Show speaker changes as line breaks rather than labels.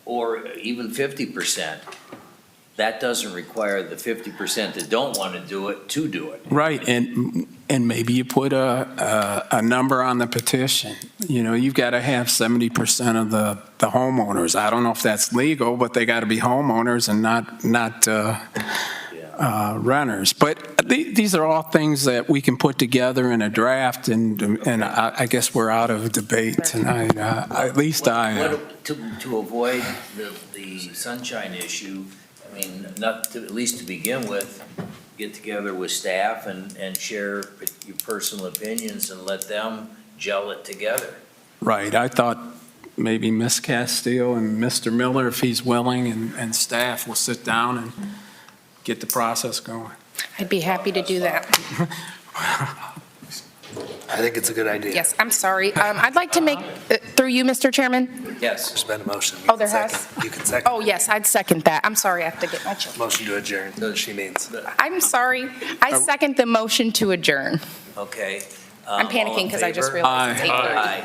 or even fifty percent, that doesn't require the fifty percent that don't want to do it to do it.
Right, and, and maybe you put a, a, a number on the petition. You know, you've got to have 70% of the, the homeowners. I don't know if that's legal, but they got to be homeowners and not, not uh,
Yeah.
uh, renters. But the- these are all things that we can put together in a draft, and, and I I guess we're out of debate tonight. Uh, At least I am.
What- To, to avoid the, the sunshine issue, I mean, not to, at least to begin with, get together with staff and, and share your personal opinions and let them gel it together.
Right, I thought maybe Ms. Castillo and Mr. Miller, if he's willing, and, and staff will sit down and get the process going.
I'd be happy to do that.
I think it's a good idea.
Yes, I'm sorry. Um, I'd like to make, uh, through you, Mr. Chairman?
Yes,
There's been a motion. You
Oh,
can
there has?
second. You can second.
Oh, yes, I'd second that. I'm sorry, I have to get my children. Oh.
Motion to adjourn, she means.
I'm sorry. I second the motion to adjourn.
okay.
I'm panicking because I just realized it's
Aye.
8:30.